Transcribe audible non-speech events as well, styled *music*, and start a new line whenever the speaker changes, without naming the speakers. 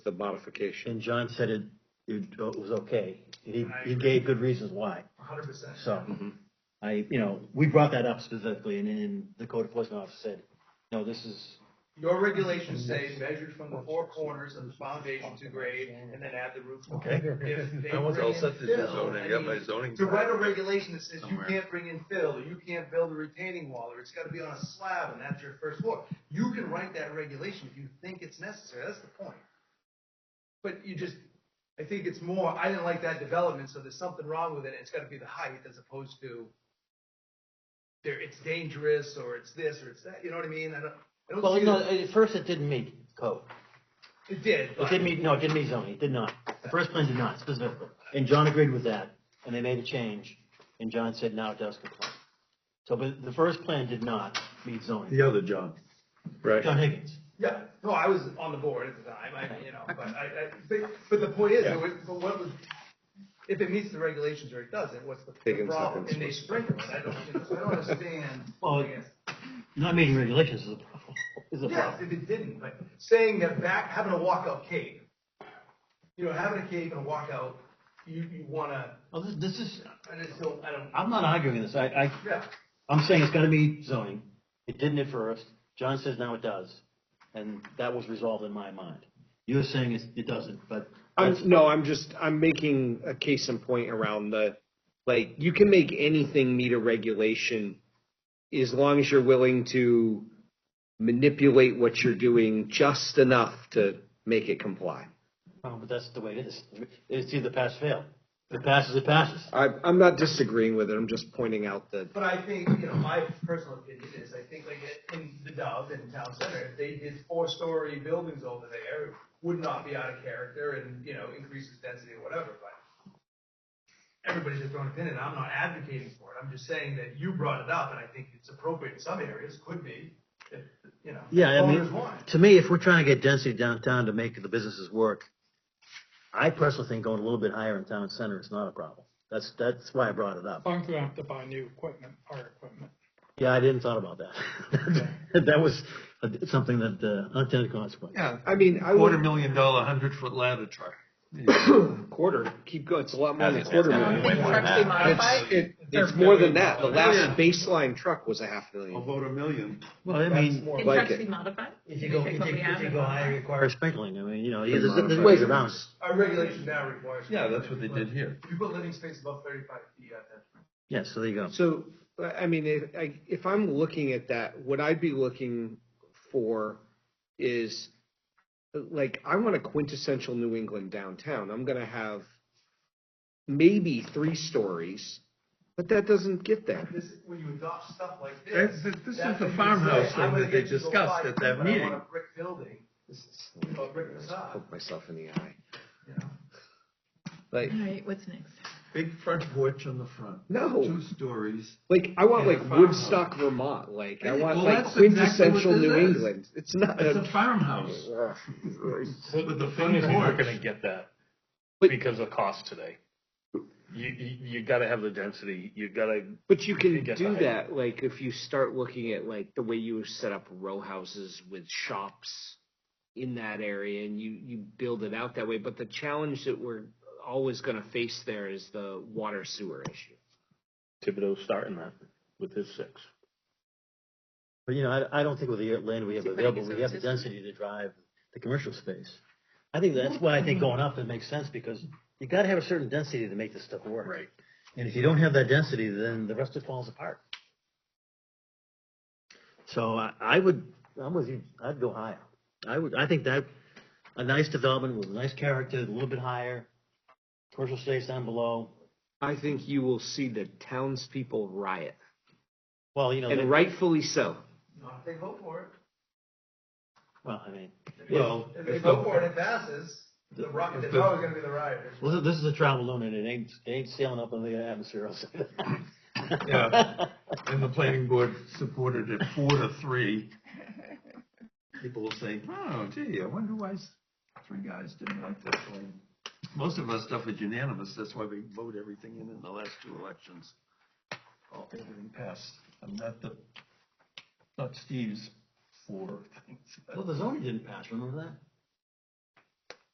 the modification.
And John said it, it uh, was okay. He, he gave good reasons why.
hundred percent.
So I, you know, we brought that up specifically and, and the code enforcement officer said, no, this is,
Your regulations say measured from the four corners of the foundation to grade, and then add the roof line.
Okay.
If they
I was
bring
all
in
set to do
fill,
zoning,
I
I got my
mean,
zoning.
To write a regulation that says you
Somewhere.
can't bring in fill, or you can't build a retaining wall, or it's gotta be on a slab, and that's your first floor. You can write that regulation if you think it's necessary, that's the point. But you just, I think it's more, I didn't like that development, so there's something wrong with it, and it's gotta be the height as opposed to there, it's dangerous, or it's this, or it's that, you know what I mean? I don't, I don't
well,
see
no,
that-
at first it didn't meet code.
It did,
It
but.
didn't meet, no, it didn't meet zoning. It did not. The first plan did not specifically. And John agreed with that and they made a change. And John said, now it does comply. So, but the first plan did not meet zoning.
The other John. Right.
John Higgins.
Yeah, no, I was on the board at the time, I, you know, but I, I, but, but the point is, it would- but what was, if it meets the regulations or it doesn't, what's the the
Higgins
problem?
Higgins
And they
was-
sprinkle it, I don't, you know, so I don't understand.
Well,
Yes.
Not meeting regulations is a problem. Is a
Yes,
problem.
if it didn't, but saying that back, having a walkout cave, you know, having a cave and a walkout, you, you wanna,
Well, this, this is,
I just don't, I don't,
I'm not arguing this. I, I,
yeah.
I'm saying it's gotta meet zoning. It didn't at first. John says now it does. And that was resolved in my mind. You're saying it, it doesn't, but that's-
I'm, no, I'm just, I'm making a case in point around the, like, you can make anything meet a regulation as long as you're willing to manipulate what you're doing just enough to make it comply.
oh, but that's the way it is. It's either pass, fail. If it passes, it passes.
I, I'm not disagreeing with it, I'm just pointing out that
But I think, you know, my personal opinion is, I think like in the Dove in Town Center, if they did four-story buildings over there, it would not be out of character and, you know, increases density or whatever, but everybody's their own opinion, I'm not advocating for it, I'm just saying that you brought it up, and I think it's appropriate in some areas, could be, if, you know.
Yeah, I
owners
mean,
want it.
to me, if we're trying to get density downtown to make the businesses work, I personally think going a little bit higher in town center is not a problem. That's, that's why I brought it up.
I'm gonna have to buy new equipment, our equipment.
Yeah, I didn't thought about *laughs* that. That was uh, something that, uh, unintended consequence.
Yeah,
I mean, I
quarter
would,
million dollar hundred foot ladder truck.
quarter, keep going, it's a lot more than a
That's-
quarter
that's-
million.
Wait, were they modified?
It's, it, it's more than that, the last baseline truck was a half
I'll
million.
vote a million.
Well, I mean,
Can
like
trucks
it.
be modified?
if you go, if
Like
you,
what we have
if you
in
go higher,
Vermont?
it requires sprinkling. I mean, you know, there's, there's ways around it.
Our regulation now requires.
Yeah, that's what they did here.
If you put living space above thirty-five feet, you have to.
Yeah, so there you go.
So, I I mean, if, I- if I'm looking at that, what I'd be looking for is, like, I want a quintessential New England downtown. I'm gonna have maybe three stories, but that doesn't get there.
This, when you adopt stuff like
That's-
this.
this- this is
that's
the
when you
farmhouse
say,
thing
I'm gonna
that they
get you to
discussed
apply
at that
for it, I want
meeting.
a brick building,
This is-
you know, a brick facade,
Poke myself in the eye.
you know.
Like,
All right, what's next?
Big front porch on the front.
No.
Two stories.
like, I want
And a
like
farmhouse.
Woodstock, Vermont, like, I
Hey,
want
well,
like
that's exactly what
quintessential
this
New
is.
England. It's not.
It's a
a-
farmhouse
Ugh.
with the
thing
front
is, you're not gonna
porch.
get that
But-
because of cost today. You, you, you gotta have the density, you gotta,
But you can
get
do
the height.
that, like if you start looking at like the way you set up row houses with shops in that area, and you you build it out that way. But the challenge that we're always going to face there is the water sewer issue.
Thibodeau's starting that with his six.
But, you know, I, I don't think with the land we have
Keep
available,
putting
we have the
these
density to drive the commercial space. I think that's why I think going up, it makes sense, because you gotta have a certain density to make this stuff work.
Right.
And if you don't have that density, then the rest of it falls apart. So I, I would, I'm with you, I'd go higher. I would, I think that, a nice development with a nice character, a little bit higher, commercial space down below,
I think you will see the townspeople riot,
well, you know, they-
and rightfully so.
Not if they vote for it.
well, I mean,
Well,
If they
if
vote for
the-
it, it passes, the ri-
if
they're
the-
probably gonna be the rioters.
Well, this is a travel loon, and it ain't, it ain't sailing up in the atmosphere. I'll say that. *laughs*
Yeah. and the planning board supported it four to three. People will say, oh gee, I wonder why s- three guys didn't like this one. Most of our stuff is unanimous, that's why we vote everything in in the last two elections. All, everything passed, and not the, not Steve's four things.
Well, the zoning didn't pass, remember that?